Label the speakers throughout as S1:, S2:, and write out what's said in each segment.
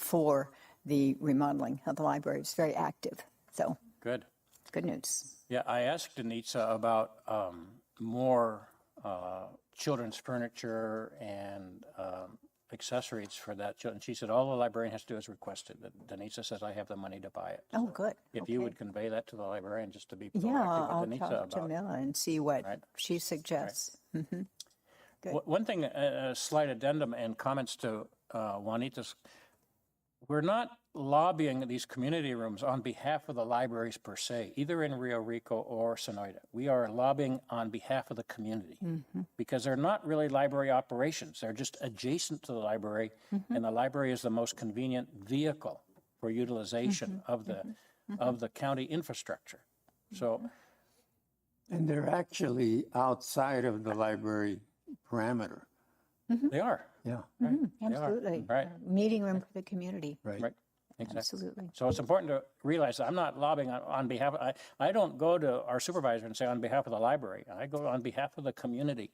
S1: before the remodeling of the library. It's very active. So
S2: Good.
S1: good news.
S2: Yeah, I asked Anitza about um, more uh, children's furniture and um, accessories for that. chil- And she said, all the librarian has to do is request it. And Anitza says, I have the money to buy it.
S1: Oh, good.
S2: If you would convey that to the librarian, just to be
S1: Yeah,
S2: proactive
S1: I'll
S2: with Anitza
S1: talk to
S2: about.
S1: Mila and see what
S2: Right.
S1: she suggests.
S2: One- One thing, a a slight addendum and comments to uh, Juanita's. We're not lobbying these community rooms on behalf of the libraries per se, either in Rio Rico or Sonoyta. We are lobbying on behalf of the community because they're not really library operations. They're just adjacent to the library, and the library is the most convenient vehicle for utilization of the of the county infrastructure. So
S3: And they're actually outside of the library parameter.
S2: they are
S3: Yeah,
S1: Mm-hmm. Absolutely.
S2: right,
S1: Meeting room for the community.
S3: right.
S2: right, exactly.
S1: Absolutely.
S2: So it's important to realize that I'm not lobbying on, on behalf, I, I don't go to our supervisor and say on behalf of the library. I go on behalf of the community.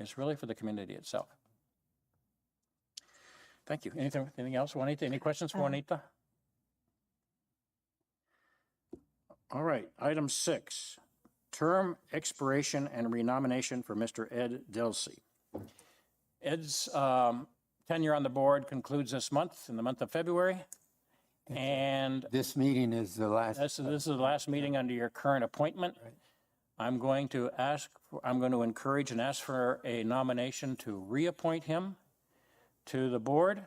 S2: It's really for the community itself. Thank you. Anything, anything else, Juanita? Any questions for Juanita? All right, item six, term expiration and renomination for Mr. Ed Delsey. Ed's um, tenure on the board concludes this month, in the month of February. And
S3: This meeting is the last,
S2: this, this is the last meeting under your current appointment. I'm going to ask, for- I'm going to encourage and ask for a nomination to reappoint him to the board.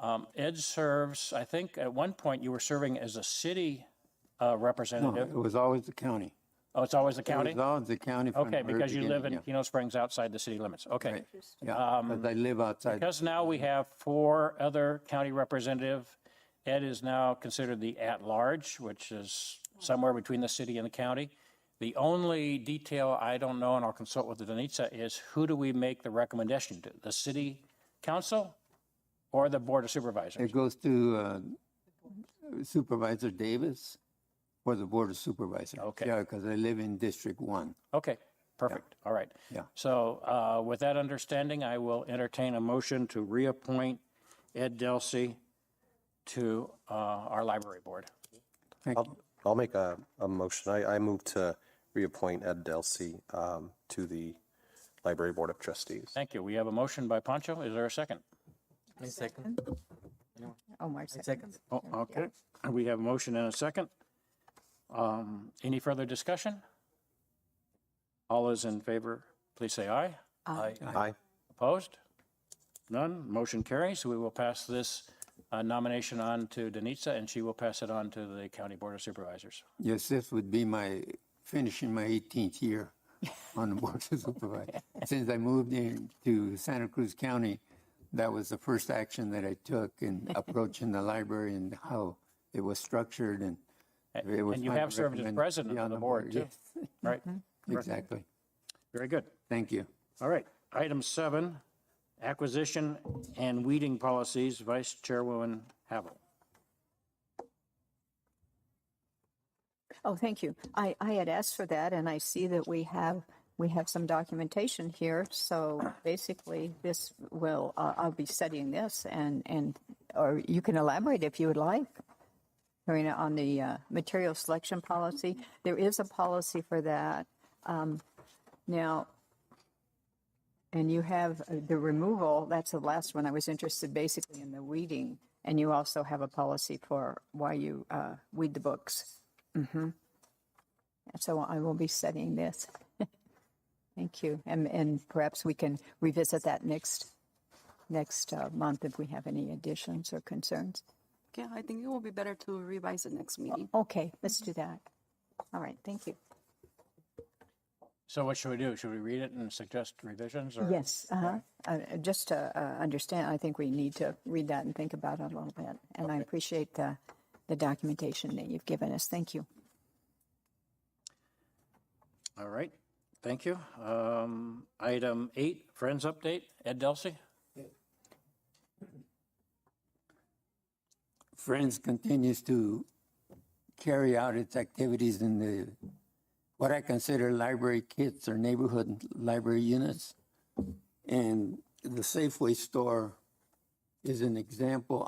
S2: Um, Ed serves, I think at one point you were serving as a city uh,
S3: no,
S2: representative.
S3: it was always the county.
S2: Oh, it's always the
S3: It
S2: county?
S3: was always the county. from the
S2: Okay,
S3: very
S2: because you live in
S3: beginning,
S2: Keno Springs outside the city limits. Okay.
S3: Yeah, Yeah, but they live outside.
S2: Because now we have four other county representative, Ed is now considered the at-large, which is somewhere between the city and the county. The only detail I don't know, and I'll consult with Danitza, is who do we make the recommendation to? The city council or the board of supervisors?
S3: It goes to uh, Supervisor Davis or the Board of Supervisors.
S2: Okay.
S3: Yeah, because they live in District One.
S2: Okay, perfect, all right.
S3: Yeah.
S2: So uh, with that understanding, I will entertain a motion to reappoint Ed Delsey to uh, our library board.
S3: Thank you.
S4: I'll make a, a motion. I, I move to reappoint Ed Delsey um, to the Library Board of Trustees.
S2: Thank you. We have a motion by Pancho. Is there a second?
S5: I second.
S1: Omar
S5: I
S1: said.
S5: second.
S2: Oh, okay. We have a motion and a second. Um, Any further discussion? All those in favor, please say aye.
S5: I
S4: Aye.
S2: Opposed? None. Motion carries. We will pass this uh, nomination on to Denitza, and she will pass it on to the County Board of Supervisors.
S3: Yes, this would be my, finishing my 18th year on the Board of Supervisors. Since I moved in to Santa Cruz County, that was the first action that I took in approaching the library and how it was structured and it was.
S2: And you
S3: my
S2: have served as
S3: recommend-
S2: president
S3: Yeah,
S2: of
S3: on
S2: the board, too.
S3: yes,
S2: Right?
S3: Exactly.
S2: Very good.
S3: Thank you.
S2: All right. Item seven, acquisition and weeding policies, Vice Chairwoman Havel.
S1: Oh, thank you. I, I had asked for that and I see that we have, we have some documentation here. So basically this will, uh, I'll be studying this and, and, or you can elaborate if you would like. Marina, on the uh, material selection policy, there is a policy for that. Um, Now, and you have uh, the removal, that's the last one I was interested basically in the weeding. And you also have a policy for why you uh, weed the books. So I will be studying this. Thank you. And, and perhaps we can revisit that next, next uh, month if we have any additions or concerns.
S6: Yeah, I think it will be better to revise it next meeting.
S1: Okay, let's do that. All right, thank you.
S2: So what should we do? Should we read it and suggest revisions or?
S1: Yes, uh-huh. Uh, uh, just to uh, understand, I think we need to read that and think about it a little bit. And I appreciate the, the documentation that you've given us. Thank you.
S2: All right, thank you. Um, Item eight, Friends Update, Ed Delsey.
S3: Friends continues to carry out its activities in the, what I consider library kits or neighborhood library units. And the Safeway store is an example